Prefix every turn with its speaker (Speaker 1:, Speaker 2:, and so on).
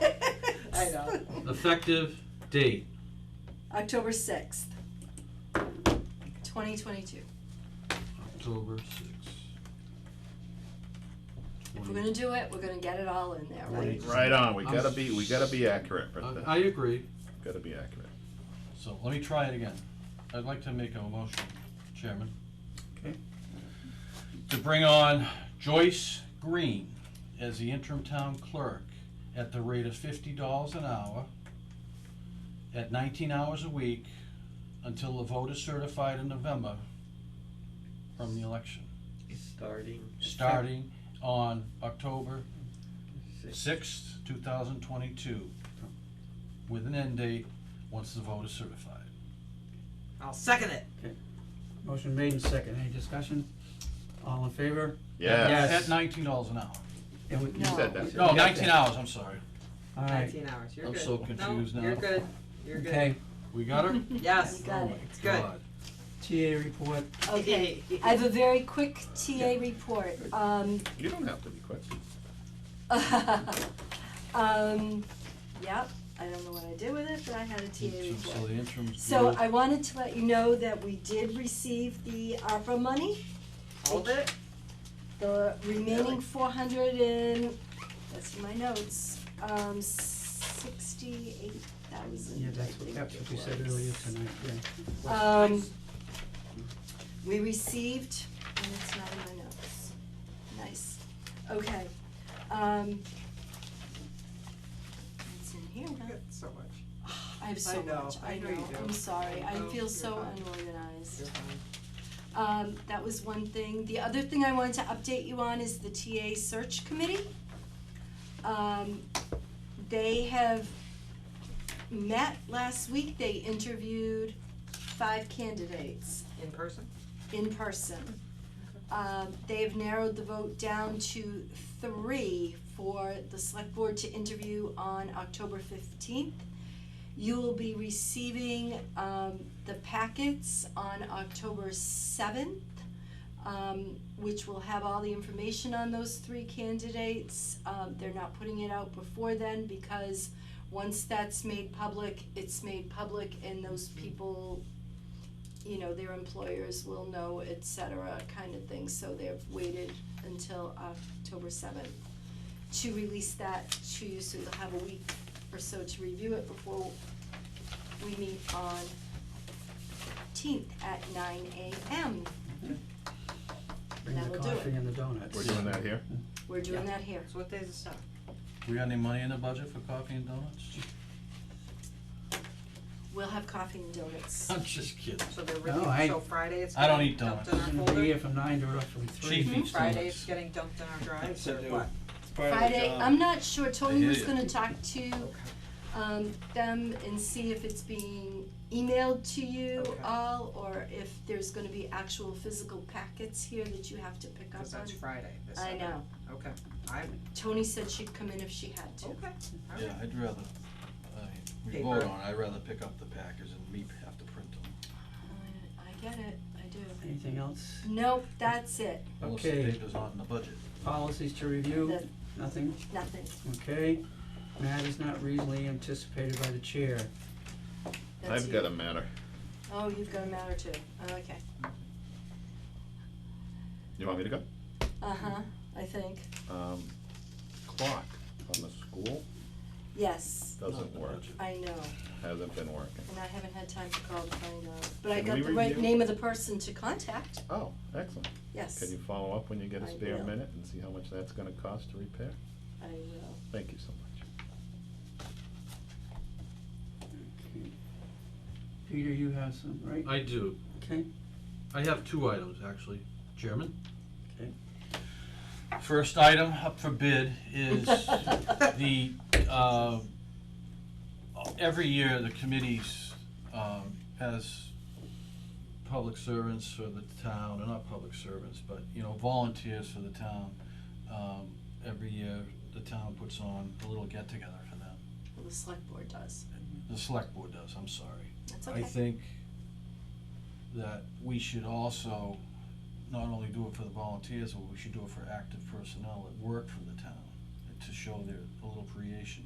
Speaker 1: I know.
Speaker 2: Effective date.
Speaker 1: October sixth, twenty twenty-two.
Speaker 2: October sixth.
Speaker 1: If we're gonna do it, we're gonna get it all in there, right?
Speaker 2: Right.
Speaker 3: Right on. We gotta be. We gotta be accurate. But
Speaker 2: I, I agree,
Speaker 3: gotta be accurate.
Speaker 2: so let me try it again. I'd like to make a motion, Chairman.
Speaker 3: Okay.
Speaker 2: To bring on Joyce Green as the interim town clerk at the rate of fifty dollars an hour at nineteen hours a week until the vote is certified in November from the election,
Speaker 4: Starting.
Speaker 2: starting on October
Speaker 4: Six.
Speaker 2: sixth, two thousand twenty-two, with an end date once the vote is certified.
Speaker 5: I'll second it.
Speaker 6: Motion made and second, any discussion? All in favor?
Speaker 3: Yes.
Speaker 2: At nineteen dollars an hour.
Speaker 6: And we-
Speaker 3: You said
Speaker 1: No.
Speaker 3: that.
Speaker 2: No,
Speaker 6: got that.
Speaker 2: nineteen hours, I'm sorry.
Speaker 6: All right,
Speaker 5: Nineteen hours. You're
Speaker 2: I'm
Speaker 5: good.
Speaker 2: so
Speaker 5: No,
Speaker 2: confused now.
Speaker 5: You're good. You're good.
Speaker 6: okay,
Speaker 2: We got her?
Speaker 5: Yes.
Speaker 1: You got
Speaker 2: Oh
Speaker 1: it.
Speaker 2: my
Speaker 5: It's good.
Speaker 2: God.
Speaker 6: TA report,
Speaker 1: Okay, I have a very quick TA report. Um,
Speaker 3: You don't have to be quick.
Speaker 1: um, yep, I don't know what I did with it, but I had a TA
Speaker 2: So so
Speaker 1: report.
Speaker 2: the interim's.
Speaker 1: So
Speaker 2: good.
Speaker 1: I wanted to let you know that we did receive the ARPA money.
Speaker 5: All of it.
Speaker 1: The remaining four hundred and, that's in my notes, um, sixty-eight thousand,
Speaker 6: yeah,
Speaker 1: I
Speaker 6: that's what,
Speaker 1: think
Speaker 6: that's
Speaker 1: it
Speaker 6: what we said
Speaker 1: was.
Speaker 6: earlier tonight, yeah.
Speaker 1: Um, we received, and it's not in my notes, nice, okay, um. It's in here,
Speaker 5: You
Speaker 1: now.
Speaker 5: got so much.
Speaker 1: I have so
Speaker 5: I know,
Speaker 1: much,
Speaker 5: I
Speaker 1: I
Speaker 5: know you
Speaker 1: know,
Speaker 5: do.
Speaker 1: I'm sorry,
Speaker 5: I
Speaker 1: I
Speaker 5: know,
Speaker 1: feel
Speaker 5: you're
Speaker 1: so
Speaker 5: fine.
Speaker 1: unorganized.
Speaker 5: You're fine.
Speaker 1: Um, that was one thing. The other thing I wanted to update you on is the TA search committee. Um, they have met last week, they interviewed five candidates
Speaker 5: In person.
Speaker 1: in person. Um, they have narrowed the vote down to three for the select board to interview on October fifteenth. You will be receiving, um, the packets on October seventh, um, which will have all the information on those three candidates. Um, they're not putting it out before then because once that's made public, it's made public and those people you know, their employers will know, et cetera, kind of thing, so they've waited until October seventh to release that to you, so you'll have a week or so to review it before we meet on fifteenth at nine AM.
Speaker 6: Bring
Speaker 1: That'll
Speaker 6: the
Speaker 1: do
Speaker 6: coffee
Speaker 1: it.
Speaker 6: and the donuts.
Speaker 3: We're doing that here.
Speaker 1: We're doing that here.
Speaker 5: So what days is that?
Speaker 2: We got any money in the budget for coffee and donuts?
Speaker 1: We'll have coffee and donuts.
Speaker 2: I'm just kidding.
Speaker 5: So they're
Speaker 6: No,
Speaker 5: really
Speaker 6: I-
Speaker 5: so Friday. It's
Speaker 2: I don't
Speaker 5: getting
Speaker 2: eat
Speaker 5: dumped
Speaker 6: It's
Speaker 5: in
Speaker 6: gonna
Speaker 5: our
Speaker 6: be
Speaker 5: folder.
Speaker 6: here from nine to roughly three.
Speaker 2: Chief eats
Speaker 5: Friday
Speaker 2: donuts.
Speaker 5: it's getting dumped in our drive.
Speaker 4: So
Speaker 5: or
Speaker 4: do-
Speaker 5: what?
Speaker 1: Friday, I'm not sure, Tony
Speaker 2: hear
Speaker 1: was
Speaker 2: ya.
Speaker 1: gonna talk to um them and see if it's being emailed to you
Speaker 5: Okay.
Speaker 1: all or if there's gonna be actual physical packets here that you have to pick up
Speaker 5: Because
Speaker 1: on.
Speaker 5: that's Friday. This
Speaker 1: I
Speaker 5: Saturday.
Speaker 1: know,
Speaker 5: Okay. I'm
Speaker 1: Tony said she'd come in if she had to.
Speaker 5: okay. All right.
Speaker 2: Yeah, I'd rather, I, we
Speaker 5: Paper.
Speaker 2: vote on, it, I'd rather pick up the packers and me have to print them.
Speaker 1: I- I get it, I do.
Speaker 6: Anything else?
Speaker 1: Nope, that's it,
Speaker 2: Unless the
Speaker 6: Okay.
Speaker 2: paper's not in the budget.
Speaker 6: Policies to review,
Speaker 1: That-
Speaker 6: nothing,
Speaker 1: nothing,
Speaker 6: okay. Matters not reasonably anticipated by the chair.
Speaker 1: that's
Speaker 3: I've
Speaker 1: you.
Speaker 3: got a matter.
Speaker 1: Oh, you've got a matter too, okay,
Speaker 3: You want me to go?
Speaker 1: uh-huh, I think,
Speaker 3: Um, clock on the school
Speaker 1: yes,
Speaker 2: Not in
Speaker 3: doesn't
Speaker 2: the
Speaker 3: work.
Speaker 2: budget.
Speaker 1: I know,
Speaker 3: Hasn't been working.
Speaker 1: and I haven't had time to call to find out, but I
Speaker 3: Can
Speaker 1: got
Speaker 3: we
Speaker 1: the right
Speaker 3: review?
Speaker 1: name of the person to contact,
Speaker 3: Oh, excellent.
Speaker 1: yes,
Speaker 3: Can you follow up when you get a
Speaker 1: I
Speaker 3: spare
Speaker 1: will.
Speaker 3: minute and see how much that's gonna cost to repair?
Speaker 1: I will.
Speaker 3: Thank you so much.
Speaker 6: Okay. Peter, you have some, right?
Speaker 2: I do,
Speaker 6: Okay,
Speaker 2: I have two items, actually, Chairman.
Speaker 6: Okay.
Speaker 2: First item up for bid is the, uh, every year, the committees, um, as public servants for the town, or not public servants, but, you know, volunteers for the town, um, every year, the town puts on a little get-together for them.
Speaker 1: Well, the select board does,
Speaker 2: The select board does, I'm sorry.
Speaker 1: that's
Speaker 2: I
Speaker 1: okay.
Speaker 2: think that we should also not only do it for the volunteers, but we should do it for active personnel that work for the town. to show their, a little creation.